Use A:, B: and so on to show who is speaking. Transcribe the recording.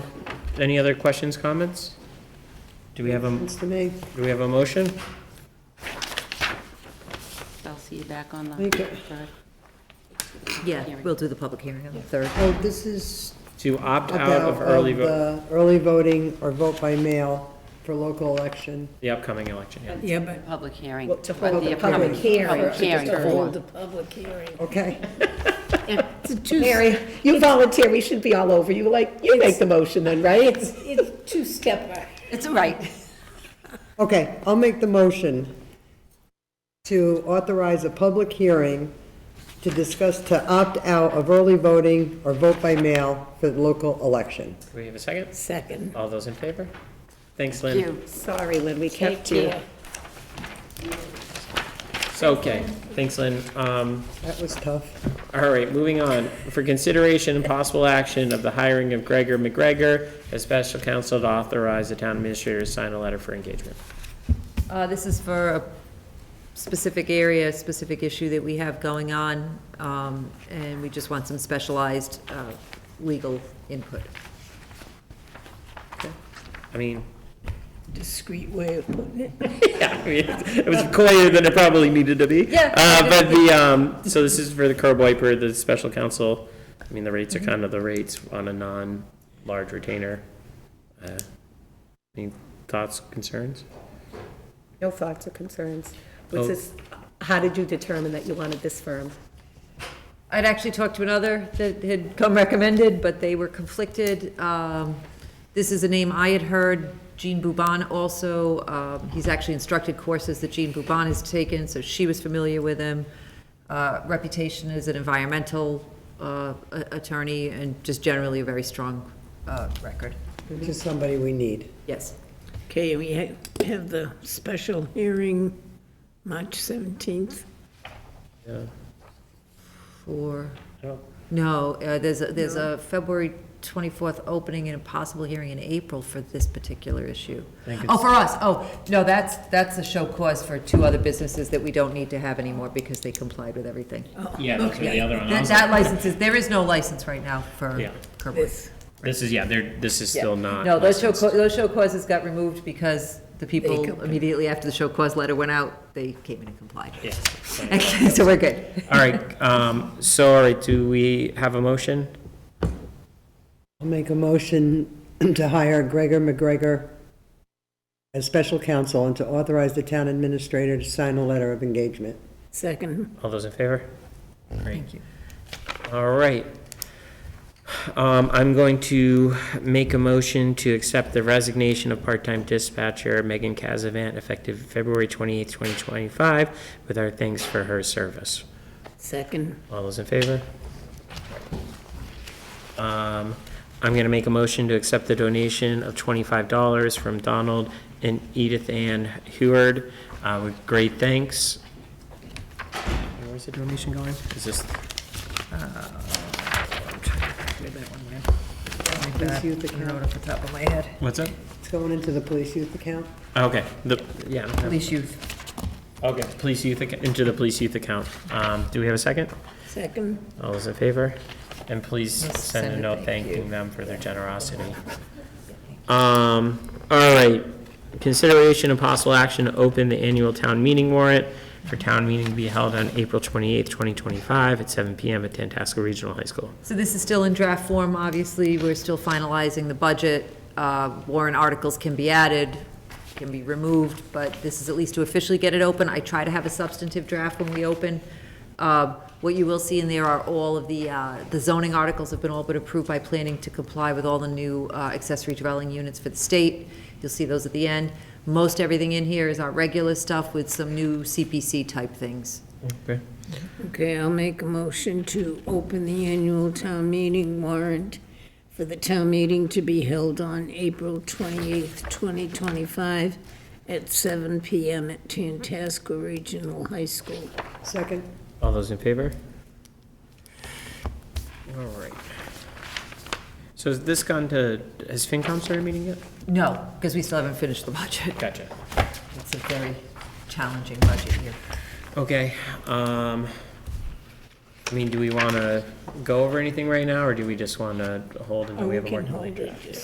A: Any other questions, comments? Do we have a,
B: It's to me.
A: do we have a motion?
C: I'll see you back on the
B: Thank you.
C: third.
D: Yeah,
C: Hearing.
D: we'll do the public hearing on the 3rd.
B: Oh, this is
A: To opt out
B: about um,
A: of early vote,
B: the early voting or vote by mail for local election.
A: the upcoming election, yeah.
E: Yeah, but
C: Public hearing.
D: Well, to
C: but
D: hold
B: the
C: upcoming-
B: public
D: hearing.
C: Public hearing
D: Just to
C: for,
D: hold-
E: the public hearing.
B: Okay.
D: It's
E: Mary,
D: you volunteer, we should be all over you, like, you make the motion then, right?
E: It's, it's two-stepper.
C: it's all right.
B: Okay, I'll make the motion to authorize a public hearing to discuss to opt out of early voting or vote by mail for the local election.
A: Do we have a second?
E: Second.
A: All those in favor? Thanks,
C: Thank
A: Lynn.
C: you.
D: Sorry, Lynn, we
E: Take
D: kept you.
E: care.
A: So, okay, thanks, Lynn. Um,
B: That was tough.
A: All right, moving on. For consideration and possible action of the hiring of Gregor McGregor as special counsel to authorize the town administrator to sign a letter for engagement.
D: Uh, This is for a specific area, a specific issue that we have going on, um, and we just want some specialized uh, legal input.
A: I mean,
E: Discreet way of putting it.
A: yeah, I mean, it was clearer than it probably needed to be.
D: Yeah.
A: Uh, but the, um, so this is for the curb wiper, the special counsel. I mean, the rates are
D: Mm-hmm.
A: kind of the rates on a non-large retainer. Uh, Any thoughts, concerns?
F: No thoughts or concerns?
A: Oh.
F: Was this, how did you determine that you wanted this firm?
D: I'd actually talked to another that had come recommended, but they were conflicted. Um, This is a name I had heard, Jean Bouban also, um, he's actually instructed courses that Jean Bouban has taken, so she was familiar with him. Uh, Reputation as an environmental uh, a- attorney, and just generally a very strong uh, record.
B: Which is somebody we need.
D: Yes.
E: Okay, we ha- have the special hearing March 17th.
A: Yeah.
D: For,
A: I don't-
D: no, uh, there's, a there's a February 24th opening and a possible hearing in April for this particular issue.
A: think
D: Oh,
A: it's-
D: for us, oh, no, that's, that's a show cause for two other businesses that we don't need to have anymore because they complied with everything.
E: Oh,
A: Yeah, that's where the other one. I
D: That
A: was
D: that
A: like-
D: license is, there is no license right now for
A: Yeah.
D: Kerwood.
E: This,
A: This is, yeah, there, this is
D: Yeah.
A: still not.
D: No, those show,
A: licensed.
D: ca- those show causes got removed because the people
E: complied.
D: immediately after the show cause letter went out, they came in and complied.
A: Yeah.
D: So we're good.
A: All right, um, so, all right, do we have a motion?
B: I'll make a motion to hire Gregor McGregor as special counsel and to authorize the town administrator to sign a letter of engagement.
E: second,
A: All those in favor?
D: Thank you.
A: All right. Um, I'm going to make a motion to accept the resignation of part-time dispatcher Megan Casavant effective February twenty-eighth, twenty twenty-five, with our thanks for her service.
E: second,
A: All those in favor? Um, I'm gonna make a motion to accept the donation of twenty-five dollars from Donald and Edith Ann Heward, uh, with great thanks. Where's the donation going? Is this? uh, I'm trying to calculate that one way.
B: Police youth
D: I
B: account.
D: off the top of my head.
A: What's up?
B: It's going into the police youth account.
A: Okay, the, yeah, okay.
D: Police youth.
A: okay, police youth, acc- into the police youth account. Um, do we have a second?
E: second.
A: All those in favor? And please
D: Yes,
A: send a
D: send a
A: note
D: thank
A: thanking
D: you.
A: them for their generosity. Um, all right, consideration and possible action to open the annual town meeting warrant for town meeting to be held on April twenty-eighth, twenty twenty-five at seven PM at Tantasco Regional High School.
D: So this is still in draft form, obviously, we're still finalizing the budget. Uh, Warrant articles can be added, can be removed, but this is at least to officially get it open. I try to have a substantive draft when we open. Uh, What you will see in there are all of the, uh, the zoning articles have been all but approved by planning to comply with all the new uh, accessory dwelling units for the state. You'll see those at the end. Most everything in here is our regular stuff with some new CPC-type things.
A: Okay.
E: Okay, I'll make a motion to open the annual town meeting warrant for the town meeting to be held on April 28th, 2025, at 7 PM at Tantasco Regional High School.
B: Second?
A: All those in favor? All right. So has this gone to, has FinCom started meeting yet?
D: No, because we still haven't finished the budget.
A: Gotcha.
D: It's a very challenging budget year.
A: Okay, um, I mean, do we wanna go over anything right now, or do we just wanna hold until we have a more?
E: hold it.